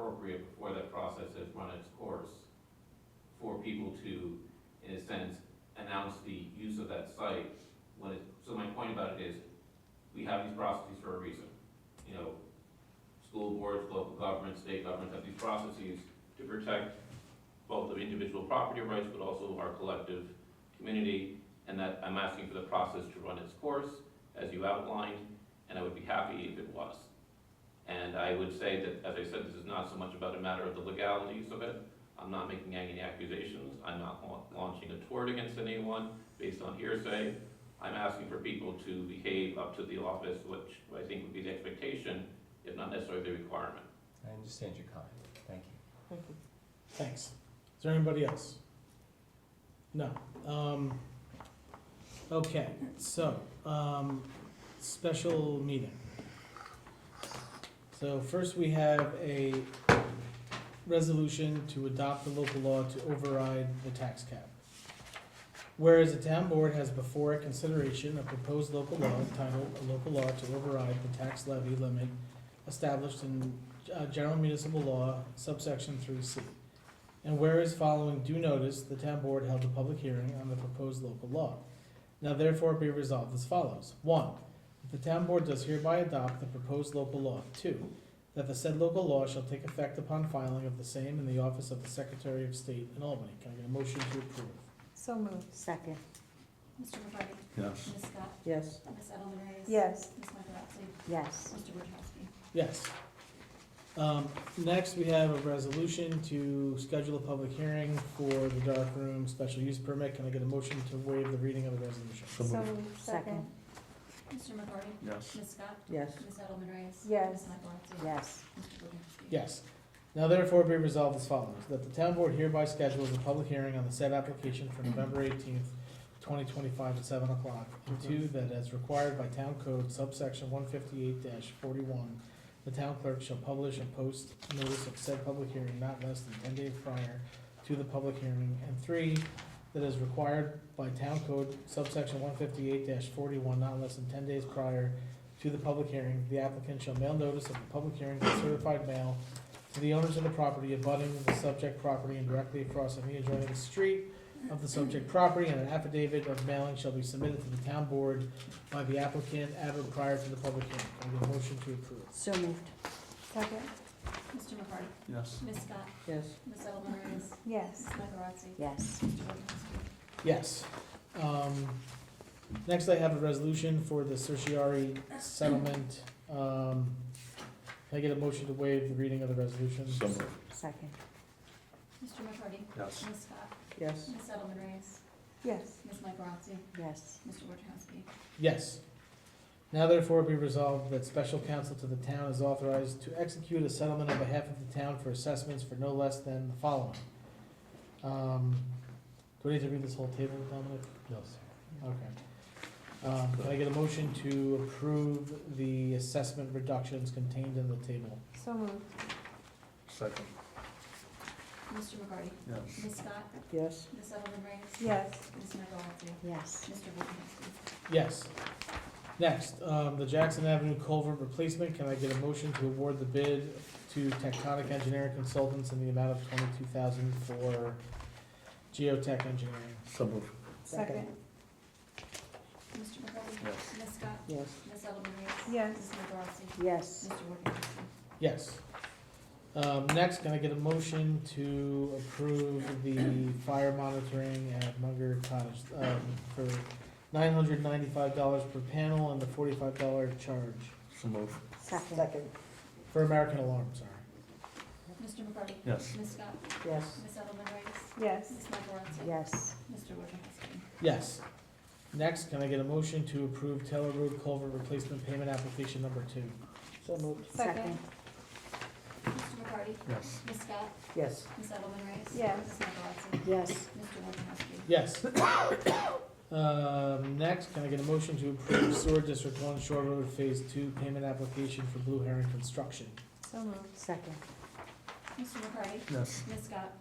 before that process has run its course, for people to, in a sense, announce the use of that site. When it, so my point about it is, we have these processes for a reason. You know, school boards, local governments, state governments have these processes to protect both the individual property rights, but also our collective community. And that, I'm asking for the process to run its course, as you outlined, and I would be happy if it was. And I would say that, as I said, this is not so much about a matter of the legalities of it. I'm not making any accusations. I'm not lau- launching a tort against anyone based on hearsay. I'm asking for people to behave up to the office, which I think would be the expectation, if not necessarily the requirement. I understand your comment, thank you. Thanks. Is there anybody else? No. Um, okay, so, um, special meeting. So first we have a resolution to adopt the local law to override the tax cap. Whereas the town board has before it consideration a proposed local law entitled a local law to override the tax levy limit established in, uh, general municipal law subsection three C. And whereas following due notice, the town board held a public hearing on the proposed local law. Now therefore be resolved as follows. One, that the town board does hereby adopt the proposed local law. Two, that the said local law shall take effect upon filing of the same in the office of the Secretary of State in Albany. Can I get a motion to approve? So moved. Second. Mr. McCarthy? Yes. Ms. Scott? Yes. Ms. Edelman Reyes? Yes. Ms. Michaelozzi? Yes. Mr. Wojciechowski? Yes. Um, next, we have a resolution to schedule a public hearing for the dark room special use permit. Can I get a motion to waive the reading of the resolution? So moved. Second. Mr. McCarthy? Yes. Ms. Scott? Yes. Ms. Edelman Reyes? Yes. Ms. Michaelozzi? Yes. Mr. Wojciechowski? Yes. Now therefore be resolved as follows, that the town board hereby schedules a public hearing on the said application for November eighteenth, twenty twenty-five at seven o'clock. And two, that as required by town code subsection one fifty-eight forty-one, the town clerk shall publish and post notice of said public hearing not less than ten days prior to the public hearing. And three, that as required by town code subsection one fifty-eight forty-one, not less than ten days prior to the public hearing, the applicant shall mail notice of the public hearing by certified mail to the owners of the property abutting the subject property and directly across any adjoining street of the subject property, and an affidavit of mailing shall be submitted to the town board by the applicant at or prior to the public hearing. Can I get a motion to approve? So moved. Second. Mr. McCarthy? Yes. Ms. Scott? Yes. Ms. Edelman Reyes? Yes. Ms. Michaelozzi? Yes. Mr. Wojciechowski? Yes. Um, next I have a resolution for the certiorari settlement. Um, can I get a motion to waive the reading of the resolution? So moved. Second. Mr. McCarthy? Yes. Ms. Scott? Yes. Ms. Edelman Reyes? Yes. Ms. Michaelozzi? Yes. Mr. Wojciechowski? Yes. Now therefore be resolved that special counsel to the town is authorized to execute a settlement on behalf of the town for assessments for no less than the following. Um, do I need to read this whole table, Dominic? No, sir. Okay. Um, can I get a motion to approve the assessment reductions contained in the table? So moved. Second. Mr. McCarthy? Yes. Ms. Scott? Yes. Ms. Edelman Reyes? Yes. Ms. Michaelozzi? Yes. Mr. Wojciechowski? Yes. Next, um, the Jackson Avenue culvert replacement, can I get a motion to award the bid to Tectonic Engineering Consultants in the amount of twenty-two thousand for geotech engineering? So moved. Second. Mr. McCarthy? Yes. Ms. Scott? Yes. Ms. Edelman Reyes? Yes. Ms. Michaelozzi? Yes. Mr. Wojciechowski? Yes. Um, next, can I get a motion to approve the fire monitoring at Munger Cottage, um, for nine hundred ninety-five dollars per panel and the forty-five dollar charge So moved. Second. for American Alarm, sorry? Mr. McCarty? Yes. Ms. Scott? Yes. Ms. Edelman Reyes? Yes. Ms. Michaelozzi? Yes. Mr. Wojciechowski? Yes. Next, can I get a motion to approve Taylor Road Culvert Replacement Payment Application Number Two? So moved. Second. Mr. McCarty? Yes. Ms. Scott? Yes. Ms. Edelman Reyes? Yes. Ms. Michaelozzi? Yes. Mr. Wojciechowski? Yes. Um, next, can I get a motion to approve Sewer District One Shore Road Phase Two Payment Application for Blue Heron Construction? So moved. Second. Mr. McCarty? Yes. Ms. Scott?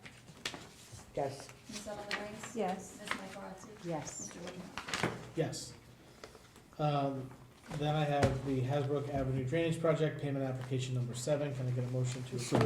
Yes. Ms. Edelman Reyes? Yes. Ms. Michaelozzi? Yes. Mr. Wojciechowski? Yes. Um, then I have the Hasbrook Avenue Drainage Project Payment Application Number Seven. Can I get a motion to approve? So moved.